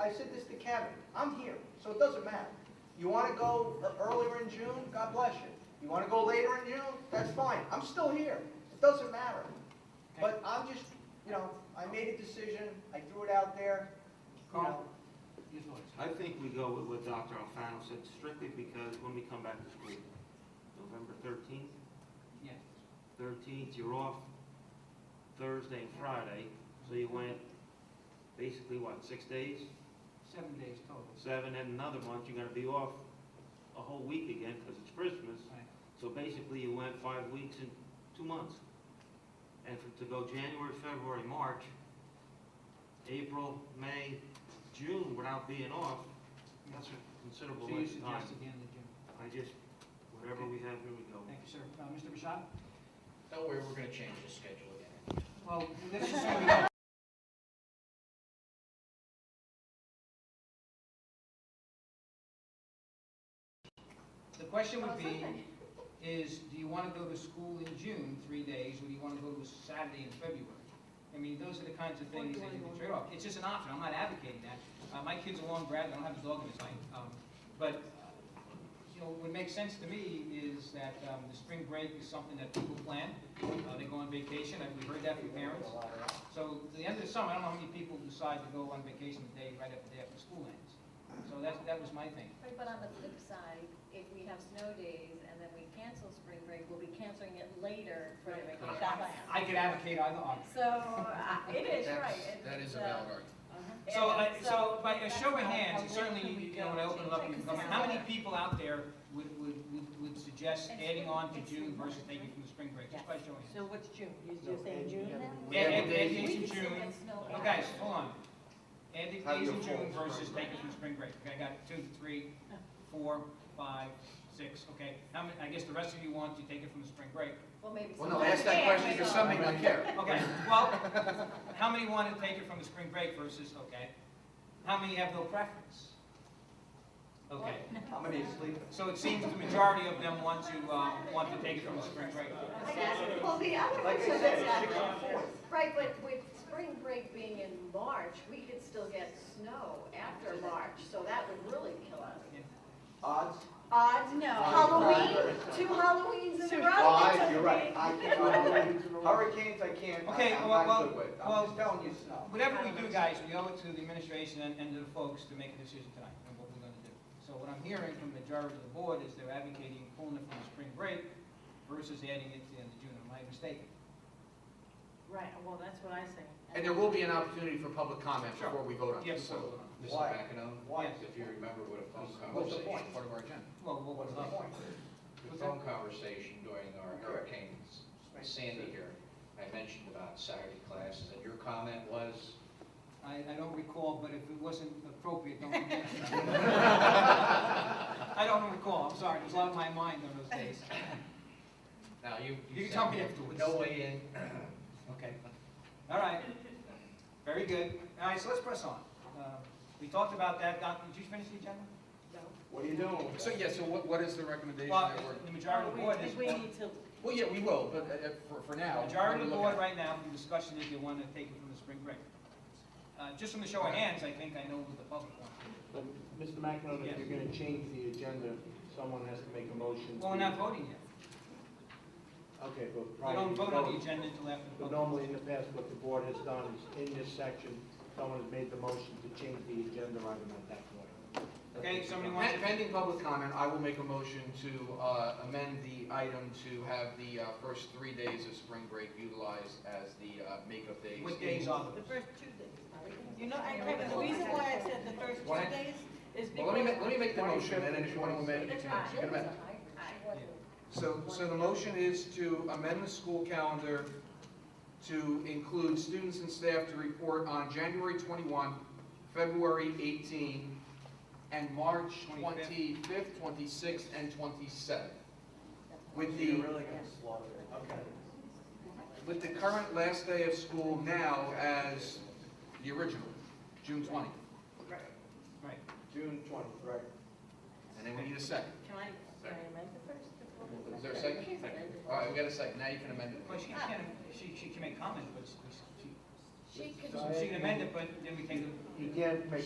I said this to Kevin, I'm here, so it doesn't matter. You wanna go e- earlier in June, God bless you. You wanna go later in June, that's fine, I'm still here, it doesn't matter. But I'm just, you know, I made a decision, I threw it out there, you know. Carl, your thoughts? I think we go with what Dr. Alfano said strictly because when we come back to school, November thirteenth, Yeah. thirteenth, you're off Thursday and Friday, so you went basically, what, six days? Seven days total. Seven and another month, you're gonna be off a whole week again because it's Christmas. Right. So basically, you went five weeks and two months. And for- to go January, February, March, April, May, June without being off, that's a So considerable you length of time. suggest again the June. I just, whatever we have, here we go. Thank you, sir. Uh, Mr. Bashad? Don't worry, we're gonna change the schedule again. Well, this is where we are. The question would be, is do you want to go to school in June, three days, or do you want to go to Saturday in February? I mean, those are the kinds of things that you can trade off. It's just an option, I'm not advocating that. Uh, my kid's a long grad, I don't have a dog in his life. Um, But, uh, you know, what makes sense to me is that um, the spring break is something that people plan. Uh, They go on vacation, and we heard that from parents. So the end of the summer, I don't know how many people decide to go on vacation the day, right after the day after school ends. So that, that was my thing. Right, but on the flip side, if we have snow days and then we cancel spring break, we'll be canceling it later for the vacation. I could advocate either argument. So, uh, it is That's- right. It's, That is a uh, valid argument. uh-huh. So, I- And so by a that's show of how- how hands, late certainly, can we you know, when I go open it change up, you it? can 'Cause comment, it's how many not- people out there would, would, would- would suggest adding on to June versus taking from the spring break, just by showing hands? So what's June? You're just saying June now? Add, add Yeah. days in We can still June, get snow no, back. guys, hold on. Add the Have days your in June full versus spring break. taking from the spring break. Okay, I got two, three, four, five, six, okay. How many, I guess the rest of you want to take it from the spring break. Well, maybe. Well, no, some- ask that Yeah, question maybe because not. some people care. Okay, well, how many want to take it from the spring break versus, okay? How many have no preference? Okay, How many is sleeping? so it seems the majority of them want to, uh, want to take it from the spring break. I guess, well, the other Like I so said, that's it's six not, on four. right, but with spring break being in March, we could still get snow after March, so that would really kill us. Odds? Odds, No. Halloween, two Halloweens in a row. Odds, you're right. I can't- Hurricanes, I can't, Okay, I- I'm well, not good well, with. well- I'm just telling you, so. Whatever we do, guys, we owe it to the administration and, and to the folks to make a decision tonight on what we're gonna do. So what I'm hearing from the majority of the board is they're advocating pulling it from the spring break versus adding it to the end of June, am I mistaken? Right, well, that's what I say. And there will be an opportunity for public comment Sure. before we vote on Yes, this. sir. Mr. Why? Mackinon, Why? if you remember what a phone What's the conversation, point? Part of our agenda. Well, what was What's the the point? the phone conversation during our Correct. Hurricane Sandy here, I mentioned about Saturday classes, and your comment was, I, I don't recall, but if it wasn't appropriate, don't forget. I don't recall, I'm sorry, it was out of my mind on those days. now you. You said tell me afterwards. No way in. Okay. All right, very good. All right, so let's press on. Uh, We talked about that, Doc, did you finish the agenda? What are you doing? with So, that? yeah, so what, what is the recommendation Well, that we're, the majority of the board is, We need to, well, yeah, we will, but uh, uh, for, for now. the majority of the we're board looking right now, the discussion is they want to take it from the spring break. Uh, Just from the show of hands, I think I know what the public wants. But, Mr. McEnroe, Yes. if you're gonna change the agenda, someone has to make a motion. Well, we're to- not voting yet. Okay, but We prior don't to vote on the vote- agenda until after the But public. normally in the past, what the board has done is, in this section, someone has made the motion to change the agenda item at that point. Okay, somebody at. wants Pen- to? Pending public comment, I will make a motion to uh, amend the item to have the uh, first three days of spring break utilized as the uh, makeup days. What days are the those? first two days. You know, I, Kevin, the reason why I said the first Why? two days is Well, let me, because ma- let me make the motion, and then if you want to amend, you That's can, fine. you can amend. So, so the motion is to amend the school calendar to include students and staff to report on January 21, February 18, and March 25th, 26th, and 27th. You're With the, really gonna slaughter it. Okay. with the current last day of school now as the original, June 20th. Right. June twentieth, right. And then we need a second. Can I, can I amend the first? before- Is there a second? All right, we got a second, now you can amend Well, it. she can, she, she can make comments, but she, she, She could she can amend it, but then we take the You can't make